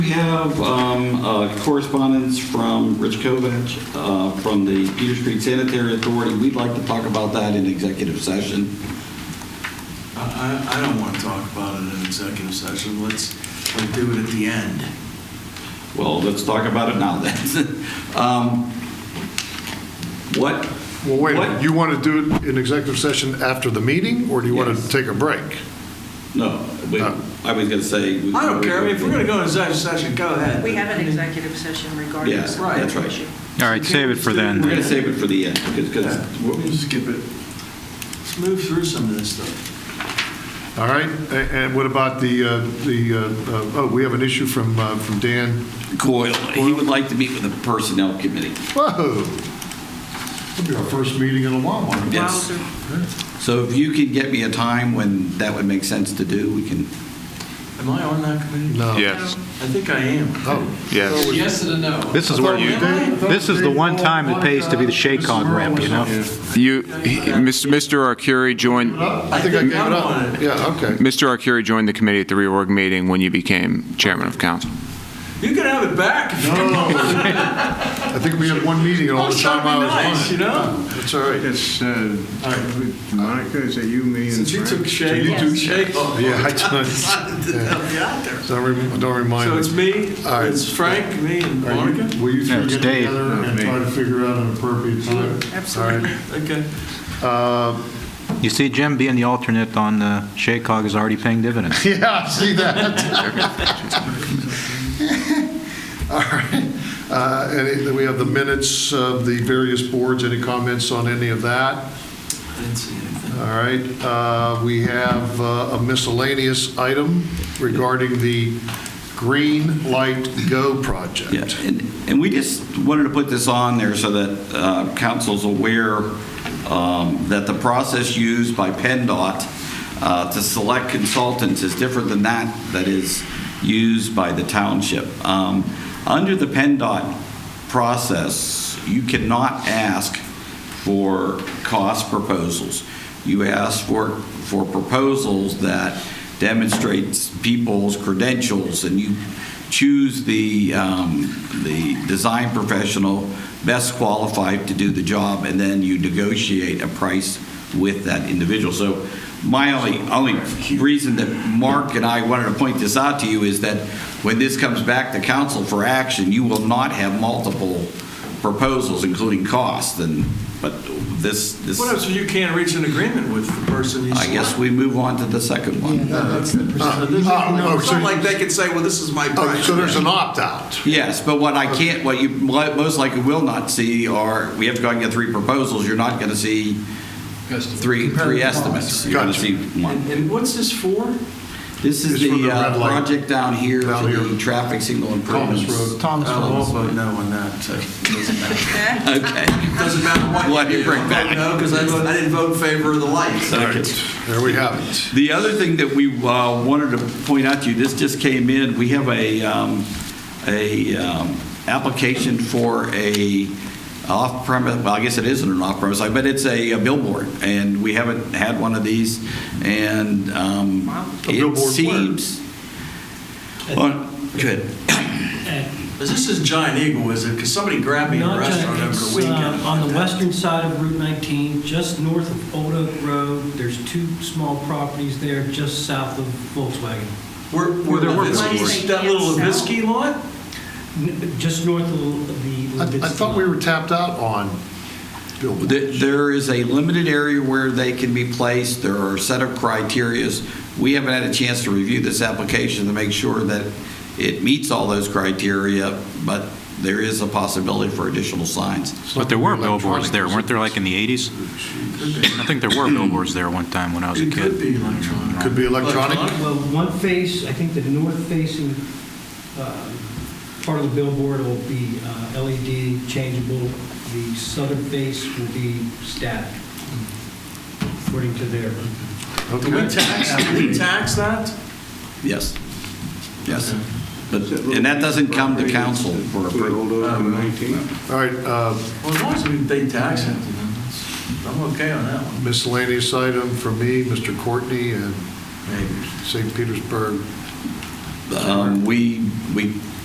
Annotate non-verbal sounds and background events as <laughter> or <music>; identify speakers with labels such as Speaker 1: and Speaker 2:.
Speaker 1: We have um, uh, correspondence from Rich Kovac uh, from the Peter Street Sanitary Authority. We'd like to talk about that in executive session.
Speaker 2: I, I I don't want to talk about it in executive session. Let's, let's do it at the end.
Speaker 1: Well, let's talk about it now then. <laughs> Um, What?
Speaker 3: Well, wait, a
Speaker 1: what-
Speaker 3: minute. you want to do it in executive session after the meeting, or do you want
Speaker 1: Yes.
Speaker 3: to take a break?
Speaker 1: No, we-
Speaker 3: No.
Speaker 1: I was going to say. we-
Speaker 2: I don't care. I mean, if we're going to go into executive session, go ahead.
Speaker 4: We have an executive session regarding
Speaker 1: Yeah,
Speaker 4: this
Speaker 1: that's right.
Speaker 4: issue.
Speaker 5: All right, save it for
Speaker 1: We're going
Speaker 5: then.
Speaker 1: to save it for the end because-
Speaker 2: Yeah, We'll
Speaker 1: because
Speaker 2: we'll skip it. Let's move through some of this stuff.
Speaker 3: All right, A- and what about the, uh, the, uh, uh, oh, we have an issue from, uh, from Dan.
Speaker 1: Coyle, he would like to meet with the Personnel Committee.
Speaker 3: Whoa! That'll be our first meeting in a long while.
Speaker 1: Yes.
Speaker 4: Wowzer.
Speaker 1: So if you could get me a time when that would make sense to do, we can.
Speaker 2: Am I on that committee?
Speaker 3: No.
Speaker 6: Yes,
Speaker 2: I think I am.
Speaker 3: Oh.
Speaker 6: yes.
Speaker 2: Yes and a no.
Speaker 5: This is where you, this is the one time it pays to be the
Speaker 3: Shaycon
Speaker 5: Shaycon rep, you know?
Speaker 6: You, Mr. Arcuri joined,
Speaker 3: I think I gave it
Speaker 2: I'm on
Speaker 3: up.
Speaker 2: it.
Speaker 3: Yeah, okay.
Speaker 6: Mr. Arcuri joined the committee at the reorg meeting when you became chairman of council.
Speaker 2: You can have it back. if you
Speaker 3: No,
Speaker 2: <laughs>
Speaker 3: no, no. I think we had one meeting in all
Speaker 2: want.
Speaker 3: the time I
Speaker 2: nice,
Speaker 3: was
Speaker 2: you
Speaker 3: on it.
Speaker 2: know?
Speaker 3: That's all right.
Speaker 7: It's, uh,
Speaker 2: All right.
Speaker 7: Monica, is that you, me, and
Speaker 2: Since you took
Speaker 7: Frank?
Speaker 2: shake,
Speaker 3: you
Speaker 2: you
Speaker 3: took
Speaker 2: took shake. off.
Speaker 3: Yeah, I
Speaker 2: Decided to help you out there.
Speaker 3: <laughs> Don't rem- don't remind
Speaker 2: So
Speaker 3: me.
Speaker 2: it's me,
Speaker 3: All right.
Speaker 2: it's Frank, me, and
Speaker 3: Are you-
Speaker 2: Monica?
Speaker 3: Will you
Speaker 5: No,
Speaker 3: three
Speaker 5: it's
Speaker 3: get
Speaker 5: Dave.
Speaker 3: together and
Speaker 7: me.
Speaker 3: try to figure out an appropriate time?
Speaker 4: Absolutely.
Speaker 2: Okay.
Speaker 3: All right. Uh,
Speaker 5: You see, Jim, being the alternate on the Shaycog is already paying dividends.
Speaker 3: <laughs> Yeah, I see that. <laughs> All right. Uh, And then we have the minutes of the various boards. Any comments on any of that?
Speaker 2: I didn't see anything.
Speaker 3: All right. Uh, We have uh, a miscellaneous item regarding the Green Light Go project.
Speaker 1: Yeah, and, and we just wanted to put this on there so that uh, council's aware um, that the process used by PennDOT uh, to select consultants is different than that that is used by the township. Um, Under the PennDOT process, you cannot ask for cost proposals. You ask for, for proposals that demonstrates people's credentials, and you choose the, um, the design professional best qualified to do the job, and then you negotiate a price with that individual. So my only, only reason that Mark and I wanted to point this out to you is that when this comes back to council for action, you will not have multiple proposals, including cost, and, but this, this,
Speaker 2: What else, if you can't reach an agreement with the person you
Speaker 1: I guess
Speaker 2: select?
Speaker 1: we move on to the second one.
Speaker 3: Uh,
Speaker 2: There's
Speaker 3: oh,
Speaker 2: no-
Speaker 3: oh,
Speaker 2: It's
Speaker 3: so-
Speaker 2: not like they could say, well, this is my
Speaker 3: oh,
Speaker 2: price.
Speaker 3: So there's an opt-out.
Speaker 1: Yes, but what I can't, what you mo- most likely will not see are, we have to go and get three proposals, you're not going to see three, three estimates. You're going to
Speaker 3: Gotcha.
Speaker 1: see one.
Speaker 2: And and what's this for?
Speaker 1: This is
Speaker 3: It's for
Speaker 1: the
Speaker 3: the red
Speaker 1: uh,
Speaker 3: light.
Speaker 1: project down here,
Speaker 3: Down
Speaker 1: for the
Speaker 3: here.
Speaker 1: traffic signal
Speaker 3: Thomas
Speaker 1: improvements.
Speaker 3: Road.
Speaker 5: Thomas
Speaker 2: I'll all vote no on that, so it doesn't matter.
Speaker 1: Okay,
Speaker 2: Doesn't matter
Speaker 1: What
Speaker 2: what
Speaker 1: do
Speaker 2: you
Speaker 1: you
Speaker 2: do.
Speaker 1: bring back?
Speaker 2: I vote No, because I vote- I didn't vote in favor of the lights.
Speaker 3: All
Speaker 2: I
Speaker 3: right. There we have it.
Speaker 1: the other thing that we uh, wanted to point out to you, this just came in, we have a, um, a um, application for a off-premise, well, I guess it isn't an off-premise, site, but it's a a billboard, and we haven't had one of these, and um,
Speaker 3: A
Speaker 1: it
Speaker 3: billboard where?
Speaker 1: seems. Oh, Good.
Speaker 2: This is Giant Eagle, is it? Because somebody grabbed me in a
Speaker 8: Not
Speaker 2: restaurant
Speaker 8: Giant,
Speaker 2: over the
Speaker 8: it's,
Speaker 2: weekend.
Speaker 8: uh, on the western side of Route 19, just north of Old Oak Road. There's two small properties there, just south of Volkswagen.
Speaker 2: Where, where
Speaker 3: there were
Speaker 2: the,
Speaker 4: billboards.
Speaker 2: that little Levisky lot?
Speaker 8: N- Just north of the.
Speaker 3: I I thought we were tapped out on billboards.
Speaker 1: There- There is a limited area where they can be placed, there are a set of criterias. We haven't had a chance to review this application to make sure that it meets all those criteria, but there is a possibility for additional signs.
Speaker 5: But there were billboards there, weren't there, like in the 80s? I think there were billboards there one time when I was a
Speaker 2: It
Speaker 5: kid.
Speaker 2: could be electronic.
Speaker 3: Could be electronic.
Speaker 8: Well, one face, I think the north facing um, part of the billboard will be uh, LED changeable. The southern face will be static, according to their.
Speaker 2: Can we
Speaker 3: Okay.
Speaker 2: tax, can we tax that?
Speaker 1: Yes, yes. But, and that doesn't come to council for approval.
Speaker 7: Old Oak and 19.
Speaker 3: All right, uh,
Speaker 2: Um, Well, as long as we they tax it, you know, that's- I'm okay on that one.
Speaker 3: miscellaneous item for me, Mr. Courtney and
Speaker 2: Maybe.
Speaker 3: St. Petersburg
Speaker 1: um, we, we